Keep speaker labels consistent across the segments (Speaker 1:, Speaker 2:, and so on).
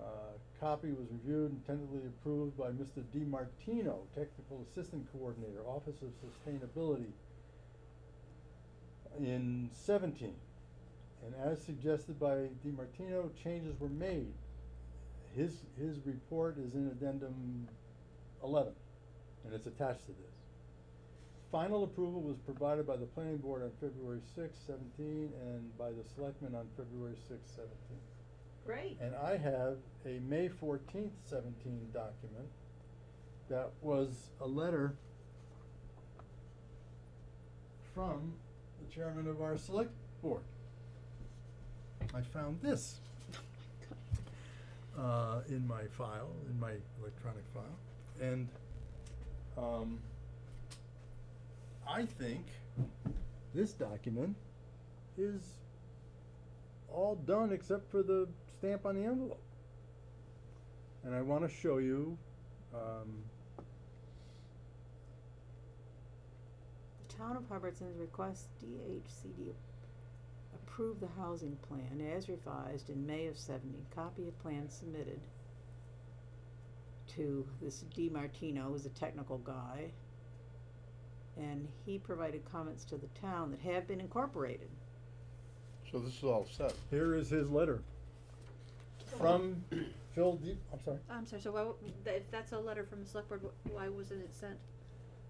Speaker 1: Uh, Copy was reviewed and tentatively approved by Mr. Di Martino, Technical Assistant Coordinator, Office of Sustainability, in seventeen. And as suggested by Di Martino, changes were made. His, his report is in addendum eleven, and it's attached to this. Final approval was provided by the planning board on February sixth, seventeen, and by the selectmen on February sixth, seventeen.
Speaker 2: Great.
Speaker 1: And uh, I have a May fourteenth seventeen document that was a letter from the chairman of our select board. I found this uh, in my file, in my electronic file, and, um, I think this document is all done except for the stamp on the envelope. And I wanna show you, um,
Speaker 3: The town of Hubbardston requests DHCD approve the housing plan as revised in May of seventy. Copy of plan submitted to this D Martino, who's a technical guy. And he provided comments to the town that have been incorporated.
Speaker 4: So this is all set.
Speaker 1: here is his letter from Phil D, I'm sorry.
Speaker 2: I'm sorry, so why, w- th- if that's a letter from the select board, wh- why wasn't it sent?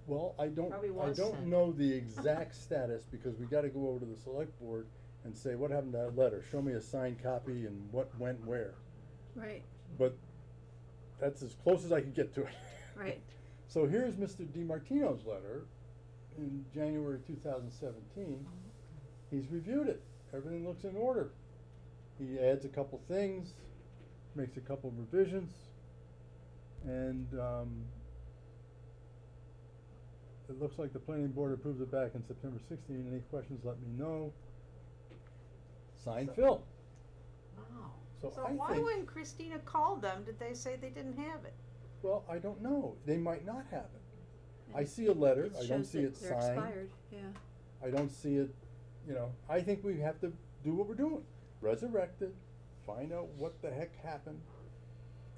Speaker 1: Well, I don't,
Speaker 2: Probably
Speaker 1: I
Speaker 2: was
Speaker 1: don't
Speaker 2: sent.
Speaker 1: know the exact status, because we gotta go over to the select board and say, what happened to that letter? Show me a signed copy and what went where.
Speaker 2: Right,
Speaker 1: But that's as close as I could get to it.
Speaker 2: right.
Speaker 1: So here's Mr. DiMartino's letter in January two thousand seventeen. He's reviewed it, everything looks in order. He adds a couple things, makes a couple revisions, and, um, it looks like the planning board approved it back in September sixteen, any questions, let me know. Signed
Speaker 3: So-
Speaker 1: Phil,
Speaker 3: Wow.
Speaker 1: so I think.
Speaker 3: So why when Christina called them, did they say they didn't have it?
Speaker 1: Well, I don't know, they might not have it. I see a letter,
Speaker 2: It
Speaker 1: I don't
Speaker 2: shows
Speaker 1: see
Speaker 2: that
Speaker 1: it
Speaker 2: They're
Speaker 1: signed,
Speaker 2: expired, yeah.
Speaker 1: I don't see it, you know, I think we have to do what we're doing. Resurrect it, find out what the heck happened,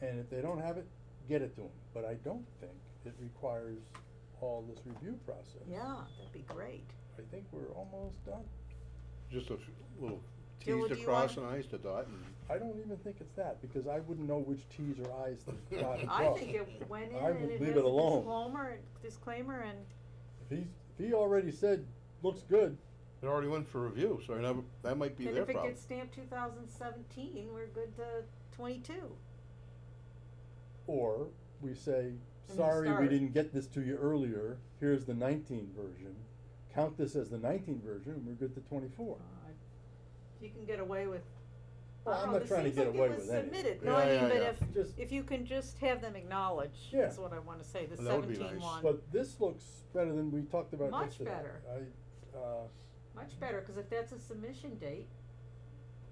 Speaker 1: and if they don't have it, get it to them. But I don't think it requires all this review process.
Speaker 3: Yeah, that'd be great.
Speaker 1: I think we're almost done.
Speaker 4: Just a f- little
Speaker 3: Jill,
Speaker 4: T's
Speaker 3: do
Speaker 4: to
Speaker 3: you
Speaker 4: cross and
Speaker 3: wanna-
Speaker 4: I's to dot and.
Speaker 1: I don't even think it's that, because I wouldn't know which Ts or Is to dot and
Speaker 3: I
Speaker 1: cross.
Speaker 3: think it went in
Speaker 1: I would
Speaker 3: and it
Speaker 1: leave
Speaker 3: has
Speaker 1: it
Speaker 3: a
Speaker 1: alone.
Speaker 3: disclaimer, disclaimer and
Speaker 1: If he's, if he already said, looks good,
Speaker 4: It already went for review, so I never, that might be
Speaker 3: And
Speaker 4: their
Speaker 3: if it
Speaker 4: problem.
Speaker 3: gets stamped two thousand seventeen, we're good to twenty-two.
Speaker 1: Or we say,
Speaker 3: the
Speaker 1: sorry, we
Speaker 3: start.
Speaker 1: didn't get this to you earlier, here's the nineteen version. Count this as the nineteen version, and we're good to twenty-four.
Speaker 3: Uh, You can get away with.
Speaker 1: Well,
Speaker 3: I
Speaker 1: I'm
Speaker 3: don't know,
Speaker 1: not
Speaker 3: Uh-huh. this
Speaker 1: trying to
Speaker 3: seems
Speaker 1: get
Speaker 3: like it
Speaker 1: away
Speaker 3: was
Speaker 1: with anything.
Speaker 3: Submitted, no,
Speaker 4: Yeah,
Speaker 3: I mean,
Speaker 4: yeah,
Speaker 3: but
Speaker 4: yeah.
Speaker 3: if,
Speaker 1: Just-
Speaker 3: if you can just have them acknowledge,
Speaker 1: Yeah.
Speaker 3: is what I wanna say, the
Speaker 4: That would be
Speaker 3: seventeen
Speaker 4: nice.
Speaker 3: one.
Speaker 1: But this looks better than we talked about
Speaker 3: Much
Speaker 1: yesterday.
Speaker 3: better.
Speaker 1: I, uh,
Speaker 3: Much better, cause if that's a submission date,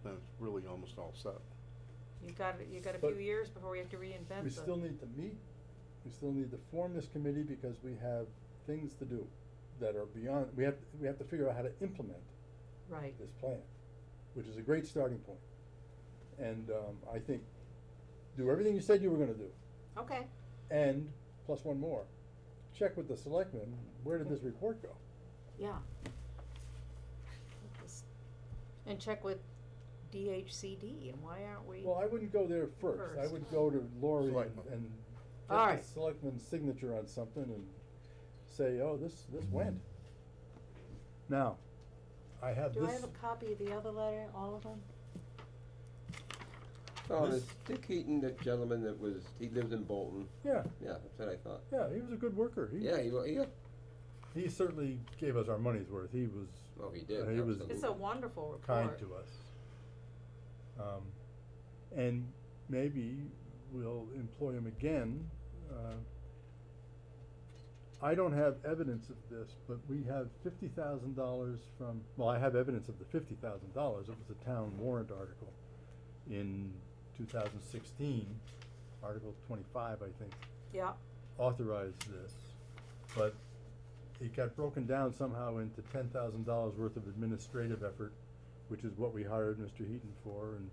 Speaker 4: Then it's really almost all set.
Speaker 3: you got, you got a
Speaker 1: But
Speaker 3: few years before we have to reinvent
Speaker 1: we
Speaker 3: the.
Speaker 1: still need to meet, we still need to form this committee because we have things to do that are beyond, we have, we have to figure out how to implement
Speaker 3: Right,
Speaker 1: this plan, which is a great starting point. And, um, I think, do everything you said you were gonna do.
Speaker 3: okay,
Speaker 1: And, plus one more, check with the selectmen, where did this report go?
Speaker 3: yeah. Just- And check with DHCD, and why aren't we?
Speaker 1: Well, I wouldn't go there first, I
Speaker 3: First.
Speaker 1: would go to Lori and,
Speaker 4: Selectmen.
Speaker 1: and get the
Speaker 3: Alright.
Speaker 1: selectman's signature on something and say, oh, this, this went. Now, I have
Speaker 3: Do I have
Speaker 1: this,
Speaker 3: a copy of the other letter, all of them?
Speaker 5: Oh,
Speaker 1: This-
Speaker 5: it's Dick Heaton, the gentleman that was, he lives in Bolton.
Speaker 1: yeah,
Speaker 5: Yeah, that's what I thought.
Speaker 1: yeah, he was a good worker, he,
Speaker 5: Yeah, he, wa- yeah,
Speaker 1: he certainly gave us our money's worth, he was
Speaker 5: well, he
Speaker 1: Uh,
Speaker 5: did.
Speaker 1: he was-
Speaker 3: It's a wonderful report.
Speaker 1: kind to us. Um, and maybe we'll employ him again, uh, I don't have evidence of this, but we have fifty thousand dollars from, well, I have evidence of the fifty thousand dollars, it was a town warrant article in two thousand sixteen, Article twenty-five, I think,
Speaker 3: Yeah,
Speaker 1: authorized this, but it got broken down somehow into ten thousand dollars worth of administrative effort, which is what we hired Mr. Heaton for, and